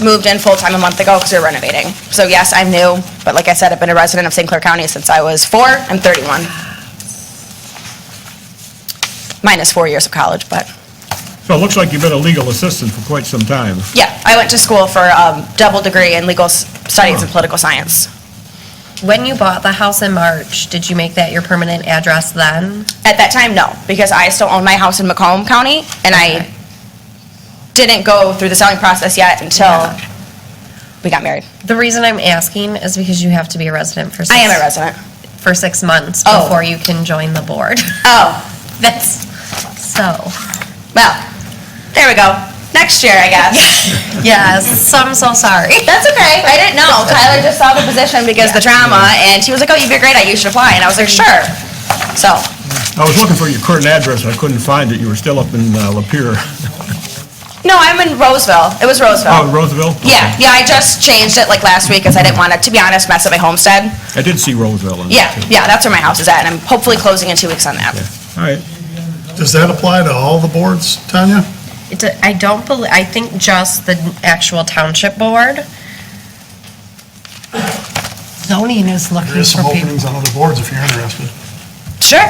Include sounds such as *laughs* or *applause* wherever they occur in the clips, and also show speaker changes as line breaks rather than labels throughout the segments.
moved in full-time a month ago because we were renovating. So yes, I'm new, but like I said, I've been a resident of St. Clair County since I was four. I'm 31. Minus four years of college, but,
So it looks like you've been a legal assistant for quite some time.
yeah, I went to school for a double degree in legal s- studies and political science.
When you bought the house in March, did you make that your permanent address then?
At that time, no, because I still own my house in Macomb County, and I didn't go through the selling process yet until we got married.
The reason I'm asking is because you have to be a resident for six.
I am a resident.
For six months
Oh.
before you can join the board. *laughs*
Oh,
That's, so,
well, there we go. Next year, I guess.
yes, I'm so sorry.
*laughs* That's okay. I didn't know. Tyler just saw the position because the drama, and she was like, "Oh, you'd be great at. it. You should apply." And I was like, "Sure." So,
I was looking for your current address, I couldn't find it, you were still up in uh, Lapeer.
no, I'm in Roseville. It was
Oh,
Roseville.
Roseville?
Yeah, yeah. I just changed it like last week because I didn't want to, to be honest, mess up my homestead.
I did see Roseville in
Yeah,
there, too.
yeah. That's where my house is at, and I'm hopefully closing in two weeks on that.
All right.
Does that apply to all the boards, Tanya?
It do- I don't believe, I think just the actual township board.
Zoning is
There
looking
is some
for people.
openings on other boards if you're interested.
Sure.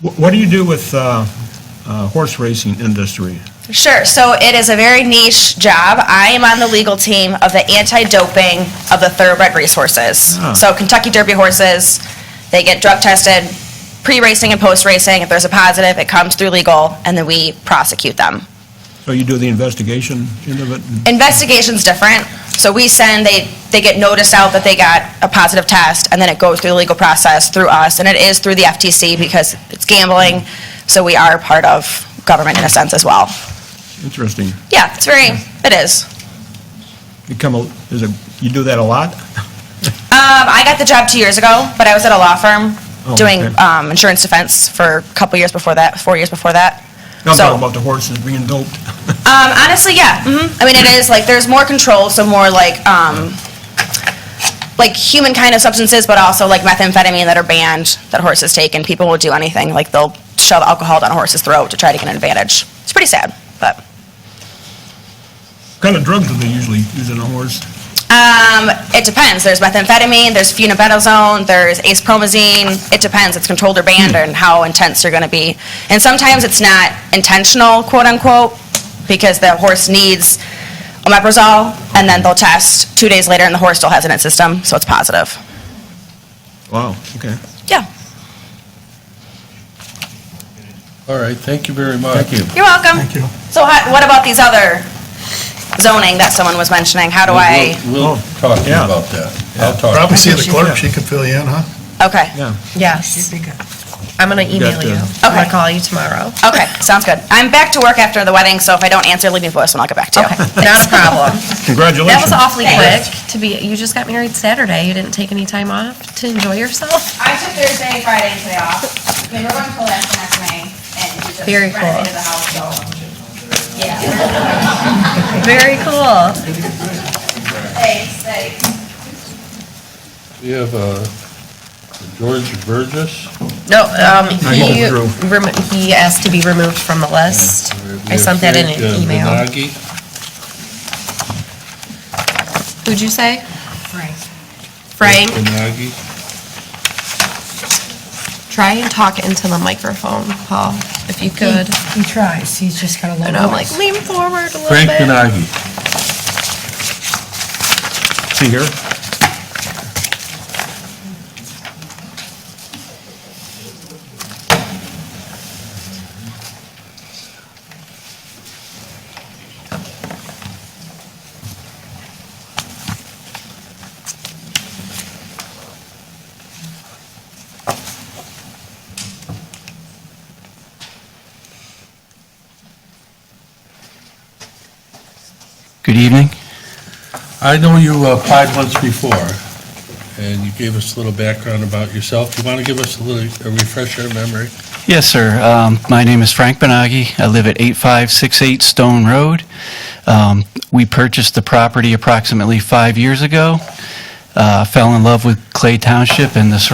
Wh- What do you do with uh, uh, horse racing industry?
Sure. So it is a very niche job. I am on the legal team of the anti-doping of the thoroughbred racehorses.
Ah.
So Kentucky Derby horses, they get drug tested pre-racing and post-racing. If there's a positive, it comes through legal, and then we prosecute them.
So you do the investigation into it?
Investigation's different. So we send, they, they get noticed out that they got a positive test, and then it goes through the legal process through us, and it is through the FTC because it's gambling, so we are part of government in a sense as well.
Interesting.
Yeah, it's very, it is.
You come, a- is it, you do that a lot? *laughs*
Um, I got the job two years ago, but I was at a law firm
Oh,
doing
okay.
um, insurance defense for a couple years before that, four years before that.
No, I'm
So-
talking about the horses being *laughs* doped.
Um, honestly, yeah. hmm I mean, it is like there's more control, so more like um, like human kind of substances, but also like methamphetamine that are banned that horses take, and people will do anything. Like they'll shove alcohol down a horse's throat to try to get an advantage. It's pretty sad, but.
What kind of drugs do they usually use in a horse?
Um, it depends. There's methamphetamine, there's funibetazone, there's acepromazine. It depends. It's controlled or banned and how intense you're going to be. And sometimes it's not intentional, quote unquote, because the horse needs omeprazole, and then they'll test two days later, and the horse still has it in its system, so it's positive.
Wow, okay.
Yeah.
All right, thank you very much.
Thank you.
You're welcome.
Thank you.
So how, what about these other zoning that someone was mentioning? How do I?
We'll- We'll
Oh,
talk to you
yeah.
about that. I'll talk.
Probably see
I
the
think
clerk,
she-
she can fill you in, huh?
Okay.
Yeah.
Yes. I'm going to email
got,
you.
uh,
I'm going
Okay.
to call you tomorrow.
Okay. Sounds good. I'm back to work after the wedding, so if I don't answer, leave me a voicemail. I'll get back to you.
Okay, not a problem.
Congratulations.
That was awfully quick
Thanks.
to be, you just got married Saturday. You didn't take any time off to enjoy yourself?
I took Thursday, Friday, and today off. I mean, we're going to Pulaski next May, and we just
Very cool.
renovated the house, so. Yeah,
Very cool.
thanks, thanks.
We have uh, George Burgess.
No, um,
he
he,
withdrew.
remo- he asked to be removed from the list.
We
I
have
sent that in
Frank, uh,
an email.
Benagi.
Who'd you say? Frank. Frank,
Benagi.
try and talk into the microphone, Paul, if you could.
He tries, he's just got a
And
low
I'm like,
voice.
lean forward a little
Frank
bit.
Benagi.
See here?
Good evening.
I know you uh, applied once before, and you gave us a little background about yourself. Do you want to give us a little, a refresher of memory?
Yes, sir. Um, My name is Frank Benagi. I live at 8568 Stone Road. Um, We purchased the property approximately five years ago, Uh, fell in love with Clay Township and the surrounding